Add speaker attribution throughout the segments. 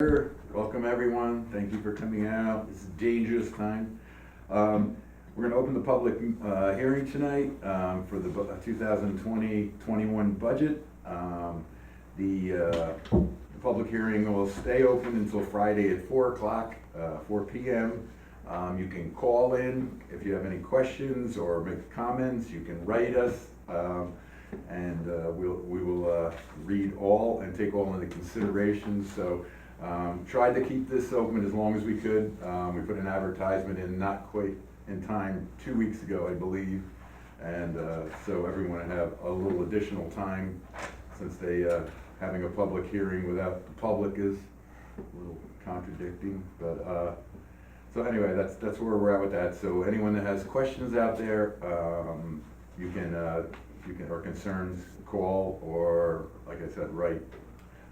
Speaker 1: Sure. Welcome, everyone. Thank you for coming out. It's a dangerous time. Um, We're going to open the public uh, hearing tonight um, for the bu- 2020-21 budget. Um, The uh, the public hearing will stay open until Friday at 4 o'clock, uh, 4 PM. Um, You can call in if you have any questions or make comments. You can write us. um, And uh, we'll, we will uh, read all and take all into consideration. So um, tried to keep this open as long as we could. Um, We put an advertisement in not quite in time, two weeks ago, I believe. And uh, so everyone have a little additional time since they, uh, having a public hearing without the public is a little contradicting, but, uh, so anyway, that's, that's where we're at with that. So anyone that has questions out there, um, you can, uh, you can, or concerns, call, or, like I said, write,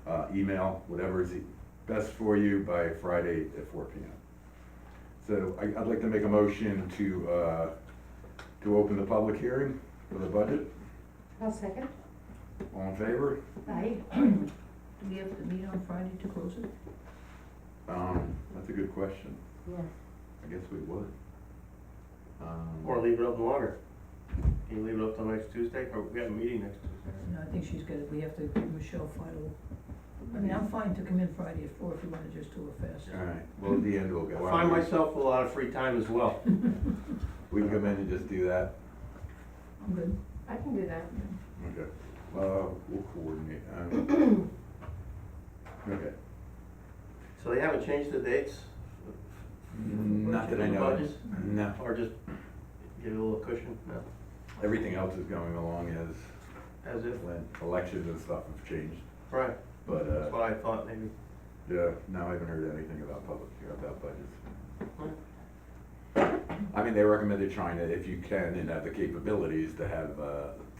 Speaker 1: uh, email, whatever is best for you by Friday at four P M. So I, I'd like to make a motion to, uh, to open the public hearing for the budget.
Speaker 2: I'll second.
Speaker 1: All in favor?
Speaker 2: Aye.
Speaker 3: Do we have to meet on Friday to close it?
Speaker 1: Um, that's a good question.
Speaker 2: Yeah.
Speaker 1: I guess we would. Um,
Speaker 4: Or leave it open longer. Can you leave it up till next Tuesday, or we have a meeting next Tuesday?
Speaker 3: No, I think she's gonna, we have to give Michelle final, I mean, I'm fine to come in Friday at four if you wanna just do it fast.
Speaker 1: All right, well, at the end we'll go.
Speaker 4: I find myself a lot of free time as well.
Speaker 1: We can come in and just do that.
Speaker 3: I'm good.
Speaker 2: I can do that.
Speaker 1: Okay. Uh, we'll coordinate. um, Okay.
Speaker 4: So they haven't changed the dates?
Speaker 1: Mm, Not that I know. of. No,
Speaker 4: Or just give it a little cushion? No,
Speaker 1: everything else is going along as
Speaker 4: as if,
Speaker 1: when elections and stuff have changed,
Speaker 4: right,
Speaker 1: but,
Speaker 4: that's
Speaker 1: uh,
Speaker 4: what I thought maybe.
Speaker 1: yeah, no, I haven't heard anything about public, about budgets. I mean, they recommended China, if you can and have the capabilities, to have, uh,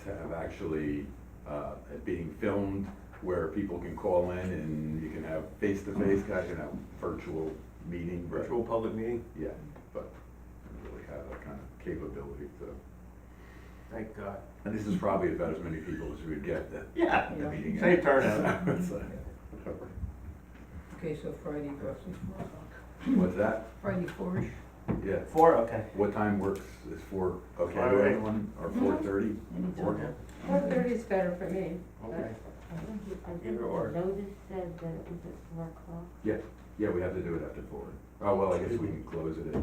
Speaker 1: to have actually, uh, it being filmed where people can call in and you can have face-to-face, guys, you know, virtual meeting, but,
Speaker 4: Virtual public meeting,
Speaker 1: yeah, but I don't really have that kind of capability, so.
Speaker 4: thank God.
Speaker 1: And this is probably about as many people as we'd get at
Speaker 4: Yeah,
Speaker 1: the
Speaker 3: Yeah.
Speaker 1: meeting.
Speaker 4: Same turnout.
Speaker 1: It's like, whatever.
Speaker 3: Okay, so Friday roughly four o'clock.
Speaker 1: What's that?
Speaker 3: Friday four-ish,
Speaker 1: Yeah,
Speaker 4: four, okay.
Speaker 1: what time works, is four, okay,
Speaker 4: Right away.
Speaker 1: everyone, or four thirty?
Speaker 3: anytime.
Speaker 4: Yeah,
Speaker 2: Four thirty is better for me.
Speaker 4: Okay,
Speaker 5: I think, you- I think
Speaker 4: Either
Speaker 5: the
Speaker 4: or.
Speaker 5: notice said that it was at four o'clock.
Speaker 1: Yeah, we have to do it after four. Oh, well, I guess we can close it at,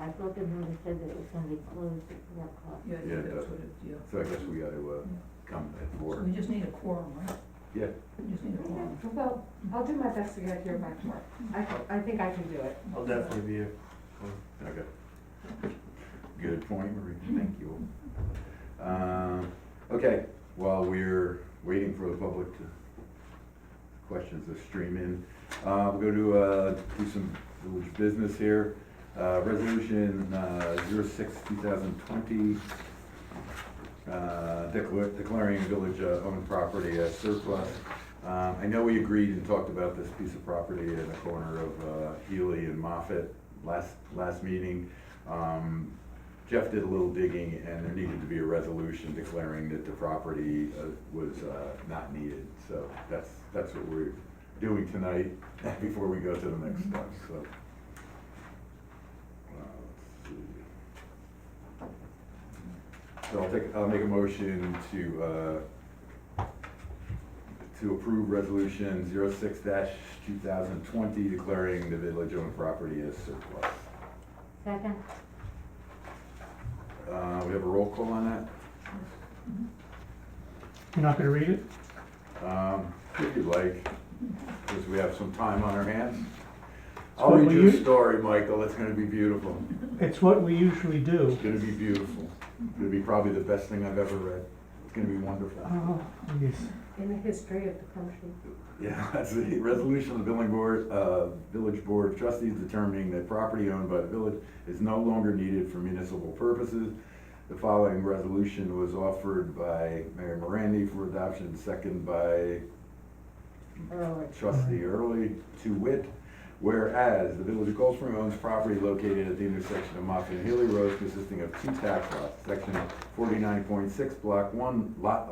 Speaker 5: I thought the notice said that it was gonna be closed at four o'clock.
Speaker 3: Yeah, I
Speaker 1: Yeah,
Speaker 3: think that's what it, yeah.
Speaker 1: so I guess we gotta, uh, come at
Speaker 3: So
Speaker 1: four.
Speaker 3: we just need a quorum, right?
Speaker 1: Yeah.
Speaker 3: We just need a quorum.
Speaker 2: Well, I'll do my best to get here by four. I, I think I can do it.
Speaker 4: I'll definitely be here.
Speaker 1: Okay. Good point, Marie, thank you. Uh, okay, while we're waiting for the public to, questions to stream in, uh, we'll go to, uh, do some village business here. Uh, resolution, uh, zero six, two thousand twenty, uh, decla- declaring village-owned property as surplus. Um, I know we agreed and talked about this piece of property in the corner of uh, Healy and Moffett last, last meeting. Um, Jeff did a little digging, and there needed to be a resolution declaring that the property uh, was uh, not needed. So that's, that's what we're doing tonight before we go to the next step, so. Uh, let's see. So I'll take, I'll make a motion to, uh, to approve resolution zero six dash two thousand twenty declaring the village owned property as surplus.
Speaker 5: Second,
Speaker 1: Uh, we have a roll call on
Speaker 6: You're not gonna read it?
Speaker 1: that, um, if you like, because we have some time on our hands.
Speaker 6: So
Speaker 1: I'll read
Speaker 6: will
Speaker 1: you a
Speaker 6: you-
Speaker 1: story, Michael, it's gonna be beautiful,
Speaker 6: It's what we usually do.
Speaker 1: it's gonna be beautiful, it's gonna be probably the best thing I've ever read, it's gonna be wonderful.
Speaker 6: Oh, yes.
Speaker 2: In the history of the country.
Speaker 1: Yeah, that's the resolution of the billing board, uh, village board of trustees determining that property owned by the village is no longer needed for municipal purposes. The following resolution was offered by Mayor Morandi for adoption, second by
Speaker 2: Early.
Speaker 1: trustee Early, to wit. Whereas the village of Cold Spring owns property located at the intersection of Moffett and Haley Roads consisting of two tax lots, section forty-nine point six, block one, lot